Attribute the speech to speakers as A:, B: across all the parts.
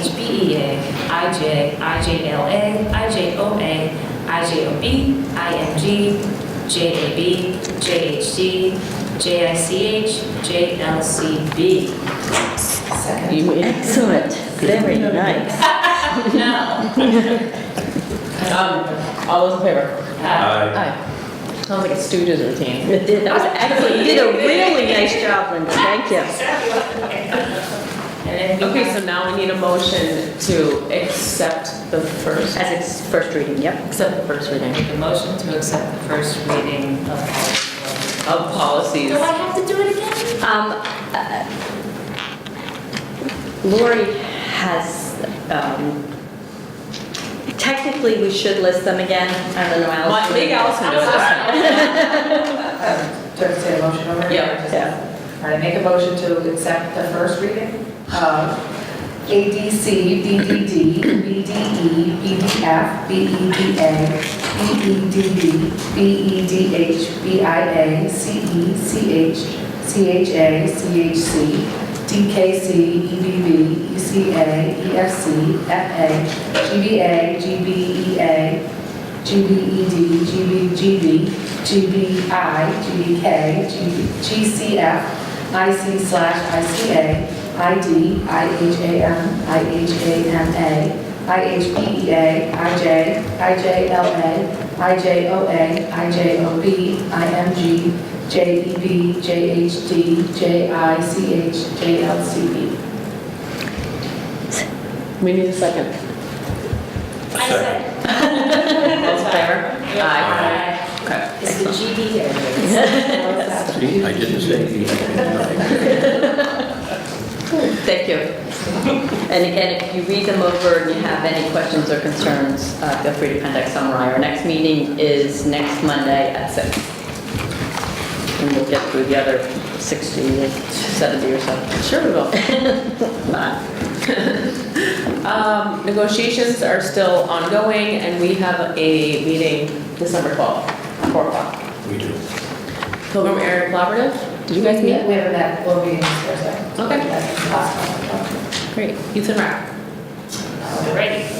A: IHBEA, IJ, IJLA, IJOA, IJOB, IMG, JAB, JHD, JICH, JLCB.
B: Second.
C: You- Excellent, very nice.
A: No.
B: Um, all those in favor?
A: Uh,
B: Aye. Oh. Sounds like a Stooges routine.
C: You did- That was excellent, you did a really nice job, Linda, thank you.
A: And then we
B: Okay,
A: have-
B: so now we need a motion to accept the first,
C: As it's first reading, yep.
B: accept the first reading
A: make a motion to accept the first reading of policy.
B: of policies.
A: Do I have to do it again?
C: Um, uh, Lori has, um, technically, we should list them again, I don't know how. else
B: What,
C: to-
B: make Allison do it this time.
D: Um, Do I have to say a motion already?
B: Yeah.
C: Yeah.
D: All right, make a motion to accept the first reading of ADC, BDD, BDE, BDF, BEDA, E, BEDD, E, BEDH, BIA, CE, CH, CHA, CHC, DKC, EBB, ECA, EFC, FA, GBA, E, GBEA, GBED, GBGB, GBI, GBK, GCF, IC slash ICA, ID, IHAM, IHAMA, IHPEA, IJ, IJLA, IJOA, IJOB, IMG, JEB, JHD, JICH, JLCB.
B: We need a second.
A: I said,
B: All in favor? Aye.
A: uh,
B: Okay.
A: it's the GD area.
E: See, I didn't say anything.
C: Thank you. And again, if you read them over and you have any questions or concerns, uh, feel free to contact Samurai. Our next meeting is next Monday at six, And we'll get through the other 60, or 70 or so.
B: Sure we will.
C: Bye.
B: Um, negotiations are still ongoing and we have a meeting December 12th, 4 o'clock.
E: We do.
B: Pilgrim Area Collaborative, did you guys
D: We
B: meet?
D: haven't met, we'll be in Thursday.
B: Okay.
D: That's the last one.
B: Great. Youth and Rec.
A: Alrighty.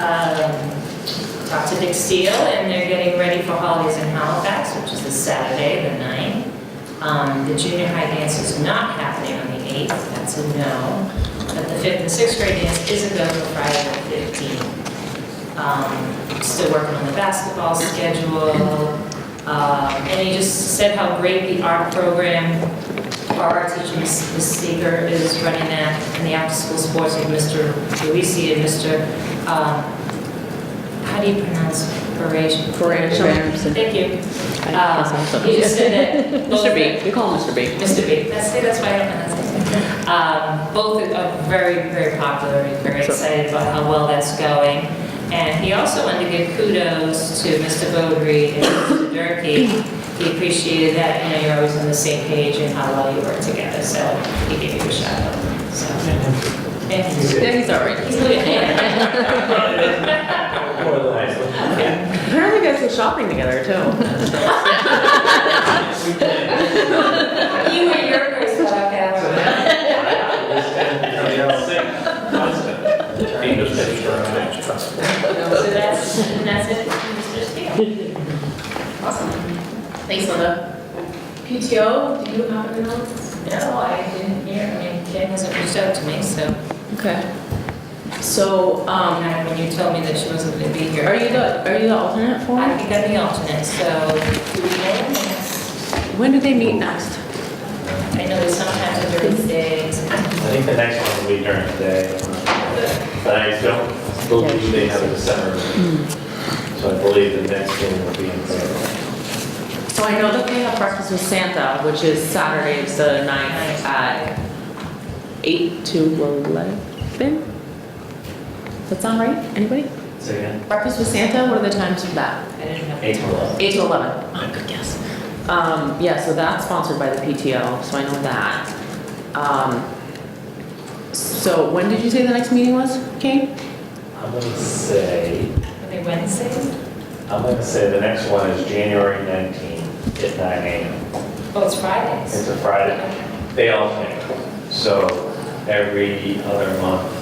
A: Um, Talked to Big Steel, and they're getting ready for holidays in Halifax, which is this Saturday, the 9th. Um, The junior high dance is not happening on the 8th, that's a no. But the 5th and 6th grade dance is a go for Friday the 15th. Um, Still working on the basketball schedule. Um, And he just said how great the art program our art teacher, Ms. Ms. Seeger, is running that, and the after-school sports with Mr. Luisi and Mr., um, how do you pronounce Parage?
B: Parage.
A: Thank you.
B: I
A: Uh,
B: guess I'm sorry.
A: He just said that. both-
B: Mr. B, we call him Mr. B.
A: Mr. B, that's, see, that's why I don't know. Um, Both are very, very popular, and very excited about how well that's going. And he also wanted to give kudos to Mr. Bowdre and Mr. Durkey. He appreciated that, you know, you're always on the same page and how well you work together, so he gave you a shout out, so. And he's
B: Yeah, he's all right.
A: he's looking
B: Apparently you guys go shopping together too.
A: You were your first podcast. So that's, and that's it, Mr. Steele.
D: Awesome.
B: Thanks, Linda.
D: PTO, do you have an announcement?
A: No, I didn't hear, I mean, Ken hasn't reached out to me, so.
B: Okay. So, um,
A: And when you told me that she wasn't gonna be here.
B: Are you the, are you the alternate for?
A: I
B: it?
A: think I'm the alternate, so do we know?
B: When do they meet next?
A: I know there's sometimes a Thursday.
F: I think the next one will be during the day. But I don't believe they have a December. meeting. So I believe the next one will be in February.
B: So I know that they have breakfast with Santa, which is Saturday, the ninth at eight to eleven? Does that sound right? Anybody?
F: So again,
B: Breakfast with Santa, what are the times of that?
A: I didn't have.
F: April.
B: Eight to eleven. Oh, good guess. Um, yeah, so that's sponsored by the PTO, so I know that. Um, so when did you say the next meeting was, Kate?
F: I'm gonna say,
A: Are they Wednesdays?
F: I'm gonna say the next one is January 19th at 9 AM.
A: Oh, it's Fridays.
F: It's a Friday. They alternate. So every other month,